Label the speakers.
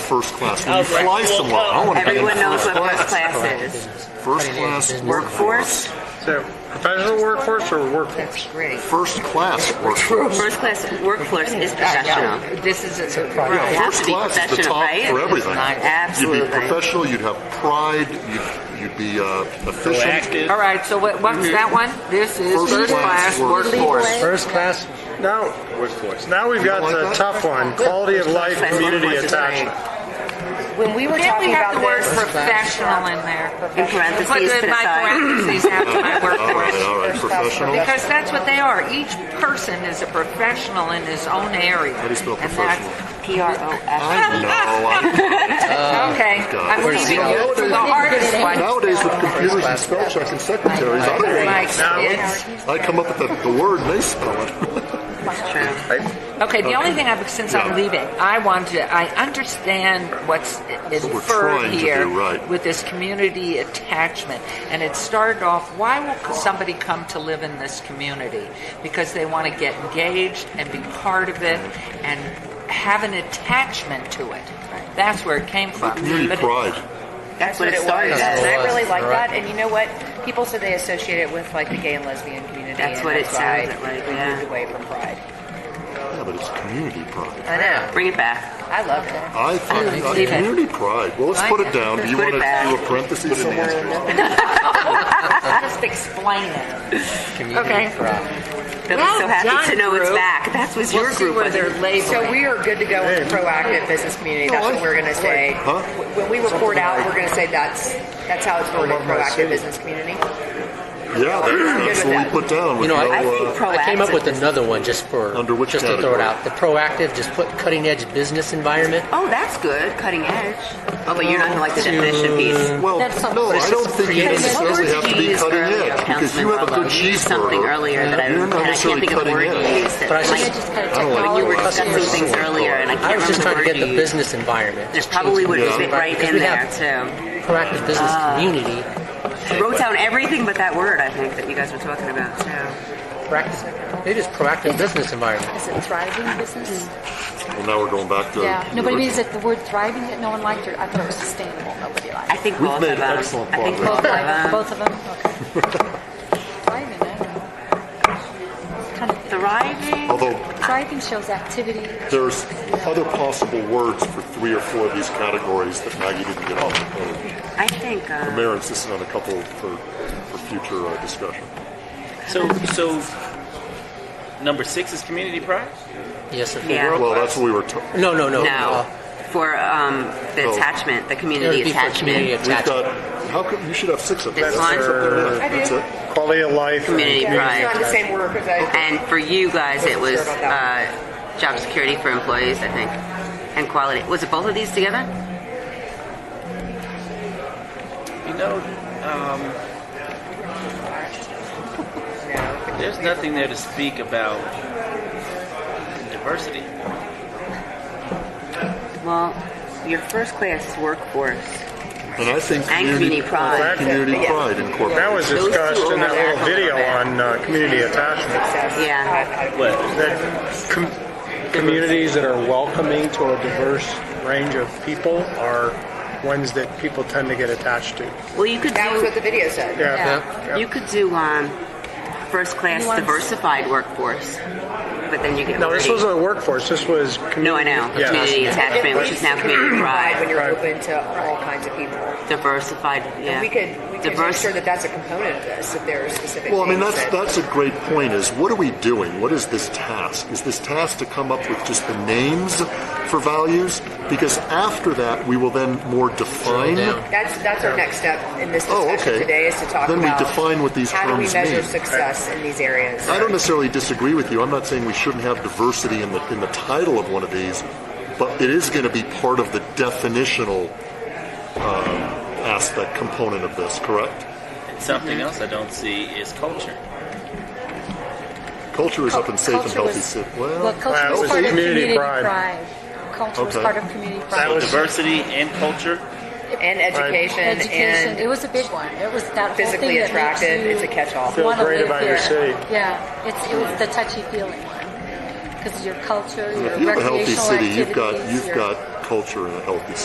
Speaker 1: first class. When
Speaker 2: Oh,
Speaker 1: you
Speaker 2: right.
Speaker 1: fly somewhere, I want to be in
Speaker 3: Everyone knows
Speaker 1: first
Speaker 3: what first
Speaker 1: class.
Speaker 3: class is.
Speaker 1: First class
Speaker 3: Workforce,
Speaker 4: So professional workforce or workforce?
Speaker 5: That's great.
Speaker 1: First class workforce.
Speaker 3: first class workforce is
Speaker 5: Yeah, yeah.
Speaker 3: professional.
Speaker 5: This is a
Speaker 3: Right.
Speaker 1: Yeah,
Speaker 3: It has
Speaker 1: first
Speaker 3: to be
Speaker 1: class is the
Speaker 3: professional,
Speaker 1: top
Speaker 3: right?
Speaker 1: for everything. You'd be
Speaker 3: Absolutely.
Speaker 1: professional. You'd have pride. You'd, you'd be uh, efficient.
Speaker 2: Proactive.
Speaker 6: All right, so what, what's that one? This is
Speaker 1: Mm-hmm. First
Speaker 6: first
Speaker 1: class
Speaker 6: class workforce.
Speaker 4: First class. Now, workforce. Now we've got
Speaker 1: like
Speaker 4: the
Speaker 1: that?
Speaker 4: tough one, quality of life,
Speaker 3: Class
Speaker 4: community
Speaker 3: workforce is right.
Speaker 4: attachment.
Speaker 5: When we were
Speaker 6: Then we
Speaker 5: talking
Speaker 6: have
Speaker 5: about
Speaker 6: the word
Speaker 5: this, uh,
Speaker 6: professional in there.
Speaker 3: In parentheses,
Speaker 6: Put
Speaker 3: put
Speaker 6: the- my
Speaker 3: aside.
Speaker 6: parentheses
Speaker 1: Oh,
Speaker 6: after my
Speaker 1: All
Speaker 6: workforce.
Speaker 1: right, all right. Professional.
Speaker 6: Because that's what they are. Each person is a professional in his own area.
Speaker 1: How do you spell
Speaker 6: And
Speaker 1: professional?
Speaker 6: that's-
Speaker 3: P R O F.
Speaker 1: I know. I-
Speaker 6: Okay,
Speaker 1: Oh, God.
Speaker 6: I'm leaving you for the hardest one.
Speaker 1: Nowadays, with computers and spell check and secretaries, I don't
Speaker 6: Like,
Speaker 1: even.
Speaker 6: it's-
Speaker 1: I come up with the, the word and they spell it.
Speaker 6: Okay, the only thing I've, since I'm
Speaker 1: Yeah.
Speaker 6: leaving, I want to, I understand what's
Speaker 1: what we're
Speaker 6: inferred
Speaker 1: trying to
Speaker 6: here
Speaker 1: do, right.
Speaker 6: with this community attachment. And it started off, why will somebody come to live in this community? Because they want to get engaged and be part of it and have an attachment to it. That's where it came from.
Speaker 1: Community
Speaker 6: But-
Speaker 1: pride.
Speaker 3: That's what it started
Speaker 5: and
Speaker 3: as.
Speaker 5: I really like that. And you know what? People said they associate it with like the gay and lesbian community.
Speaker 3: That's
Speaker 5: and
Speaker 3: what it
Speaker 5: that's why
Speaker 3: sounded like,
Speaker 5: We
Speaker 3: yeah.
Speaker 5: moved away from pride.
Speaker 1: Yeah, but it's community pride.
Speaker 5: I know.
Speaker 3: Bring it back.
Speaker 5: I love it.
Speaker 1: I thought uh,
Speaker 6: Leave it.
Speaker 1: community pride. Well, let's put it down. Do you
Speaker 3: Put
Speaker 1: want
Speaker 3: it
Speaker 1: to do
Speaker 3: back.
Speaker 1: a parentheses in the answer?
Speaker 6: Just explain it. Okay.
Speaker 3: They'll be so
Speaker 6: Well done,
Speaker 3: happy to know it's
Speaker 6: group.
Speaker 3: back. That was
Speaker 6: We'll
Speaker 3: your
Speaker 6: see
Speaker 3: group.
Speaker 6: where
Speaker 3: wasn't
Speaker 6: they're
Speaker 3: it?
Speaker 6: labeling. Oh,
Speaker 5: So we are good to go with proactive business community. That's what we're going to say.
Speaker 1: Huh?
Speaker 5: When we report out, we're going to say that's that's how it's worded: proactive business community.
Speaker 1: Yeah, that- that's what we put down. with
Speaker 7: You know,
Speaker 1: no,
Speaker 7: I,
Speaker 3: I think
Speaker 1: uh,
Speaker 7: I came up with
Speaker 3: proactive.
Speaker 7: another one just for
Speaker 1: Under which
Speaker 7: just to throw
Speaker 1: category?
Speaker 7: it out. The proactive, just put cutting edge business environment.
Speaker 3: Oh, that's good. Cutting edge. Oh, but you're not going to like the definition piece.
Speaker 1: Well,
Speaker 7: That's not-
Speaker 1: no,
Speaker 7: but
Speaker 1: I
Speaker 7: it's
Speaker 1: don't
Speaker 7: just
Speaker 1: think you
Speaker 7: creating-
Speaker 1: necessarily have to be
Speaker 3: Used
Speaker 1: cutting
Speaker 3: earlier,
Speaker 1: edge because
Speaker 3: Councilman
Speaker 1: you have a
Speaker 3: Marlowe.
Speaker 1: good
Speaker 3: You used something earlier
Speaker 1: cheeseburger.
Speaker 3: that I,
Speaker 1: You're
Speaker 3: and
Speaker 1: not
Speaker 3: I can't
Speaker 1: necessarily
Speaker 3: think of the
Speaker 1: cutting
Speaker 3: word you
Speaker 1: edge.
Speaker 3: used. That,
Speaker 7: But I
Speaker 3: like,
Speaker 7: just-
Speaker 1: I don't like the
Speaker 3: you were
Speaker 1: word
Speaker 3: discussing
Speaker 1: cutting
Speaker 3: things
Speaker 1: edge.
Speaker 3: earlier, and I
Speaker 7: I
Speaker 3: can't
Speaker 7: was just trying to
Speaker 3: remember the
Speaker 7: get
Speaker 3: word
Speaker 7: the
Speaker 3: you used.
Speaker 7: business environment.
Speaker 3: It
Speaker 7: just
Speaker 3: probably
Speaker 7: change
Speaker 3: would have
Speaker 7: business
Speaker 3: fit right
Speaker 7: environment,
Speaker 3: in
Speaker 7: because
Speaker 3: Ah.
Speaker 7: we
Speaker 3: there, too.
Speaker 7: have Proactive business community.
Speaker 3: Wrote down everything but that word, I think, that you guys were talking about, too.
Speaker 7: Proactive, it is proactive business environment.
Speaker 8: Is it thriving business?
Speaker 1: Well, now we're going back to.
Speaker 8: Yeah. No, but I mean, is it the word thriving that no one liked, or I thought it was sustainable, nobody liked?
Speaker 3: I think
Speaker 1: We've
Speaker 3: both
Speaker 1: made
Speaker 3: of them.
Speaker 1: excellent
Speaker 3: I think both
Speaker 1: progress.
Speaker 3: of
Speaker 8: Both, like,
Speaker 3: them.
Speaker 8: both of them? Okay. Thriving, I don't know. Kind of-
Speaker 3: Thriving.
Speaker 1: Although
Speaker 8: Thriving shows activity.
Speaker 1: there's other possible words for three or four of these categories that Maggie didn't get off the page.
Speaker 3: I think.
Speaker 1: The
Speaker 3: Uh,
Speaker 1: mayor insisted on a couple for, for future uh, discussion.
Speaker 2: So, so number six is community pride.
Speaker 7: Yes, sir.
Speaker 3: Yeah.
Speaker 1: Well, that's what we were. T-
Speaker 7: No, no, no.
Speaker 3: no,
Speaker 7: Uh,
Speaker 3: for um, the
Speaker 1: No.
Speaker 3: attachment, the
Speaker 7: it would
Speaker 3: community
Speaker 7: be for community
Speaker 3: attachment.
Speaker 1: we've
Speaker 7: attachment.
Speaker 1: got. How come you should have six of them?
Speaker 3: This
Speaker 1: That's
Speaker 3: one?
Speaker 1: it.
Speaker 4: I
Speaker 1: That's it.
Speaker 4: Quality of life.
Speaker 3: Community
Speaker 5: It's not
Speaker 3: pride.
Speaker 5: the same word because I.
Speaker 3: And for you guys, it was uh, job security for employees, I think, and quality. Was it both of these together?
Speaker 2: You know, um, there's nothing there to speak about diversity.
Speaker 3: Well, your first class is workforce.
Speaker 1: And I think
Speaker 3: And community pride.
Speaker 1: Community pride incorporated.
Speaker 4: That was
Speaker 3: Those two
Speaker 4: discussed in that little
Speaker 3: overlap a little
Speaker 4: video
Speaker 3: bit.
Speaker 4: on uh, community attachment.
Speaker 3: Yeah.
Speaker 2: What?
Speaker 4: That com- communities that are welcoming to a diverse range of people are ones that people tend to get attached to.
Speaker 3: Well, you could
Speaker 5: That was
Speaker 3: do
Speaker 5: what the video said.
Speaker 7: Yeah.
Speaker 3: you could do um, first class diversified workforce, but then you get
Speaker 4: No, this
Speaker 3: worried.
Speaker 4: wasn't a workforce. This was community.
Speaker 3: No, I know.
Speaker 4: Yeah.
Speaker 3: Community attachment, which is now community
Speaker 5: Pride
Speaker 3: pride.
Speaker 5: when you're
Speaker 4: Right.
Speaker 5: open to all kinds of people.
Speaker 3: Diversified, yeah.
Speaker 5: We could, we could make
Speaker 3: Diverse-
Speaker 5: sure that that's a component of this, if there are specific.
Speaker 1: Well, I mean,
Speaker 5: things
Speaker 1: that's,
Speaker 5: that-
Speaker 1: that's a great point is what are we doing? What is this task? Is this task to come up with just the names for values? Because after that, we will then more define.
Speaker 7: down.
Speaker 5: That's, that's our next step in this
Speaker 1: Oh,
Speaker 5: discussion
Speaker 1: okay.
Speaker 5: today is to talk
Speaker 1: Then we
Speaker 5: about.
Speaker 1: define what these
Speaker 5: How do we
Speaker 1: terms
Speaker 5: measure
Speaker 1: mean.
Speaker 5: success in these areas?
Speaker 1: I don't necessarily disagree with you. I'm not saying we shouldn't have diversity in the, in the title of one of these, but it is going to be part of the definitional um, aspect component of this, correct?
Speaker 2: Something else I don't see is culture.
Speaker 1: Culture is up in safe and
Speaker 8: Culture
Speaker 1: healthy
Speaker 8: was-
Speaker 1: city.
Speaker 8: Well, culture
Speaker 4: Wow,
Speaker 8: was
Speaker 4: it was
Speaker 8: part of
Speaker 4: community
Speaker 8: community
Speaker 4: pride.
Speaker 8: pride. Culture was
Speaker 1: Okay.
Speaker 8: part of community
Speaker 2: So
Speaker 8: pride.
Speaker 2: diversity and culture.
Speaker 5: And education
Speaker 8: Education, it
Speaker 5: and
Speaker 8: was a big one. It was that whole thing
Speaker 5: physically
Speaker 8: that makes
Speaker 5: attractive,
Speaker 8: you
Speaker 5: it's a catch-all.
Speaker 4: Feel
Speaker 8: wanna
Speaker 4: great
Speaker 8: live
Speaker 4: about your
Speaker 8: here.
Speaker 4: city.
Speaker 8: Yeah, it's, it was the touchy-feely one. Because your culture, your
Speaker 1: If you have a healthy
Speaker 8: recreational
Speaker 1: city, you've got,
Speaker 8: activities,
Speaker 1: you've
Speaker 8: your-
Speaker 1: got culture in a healthy city.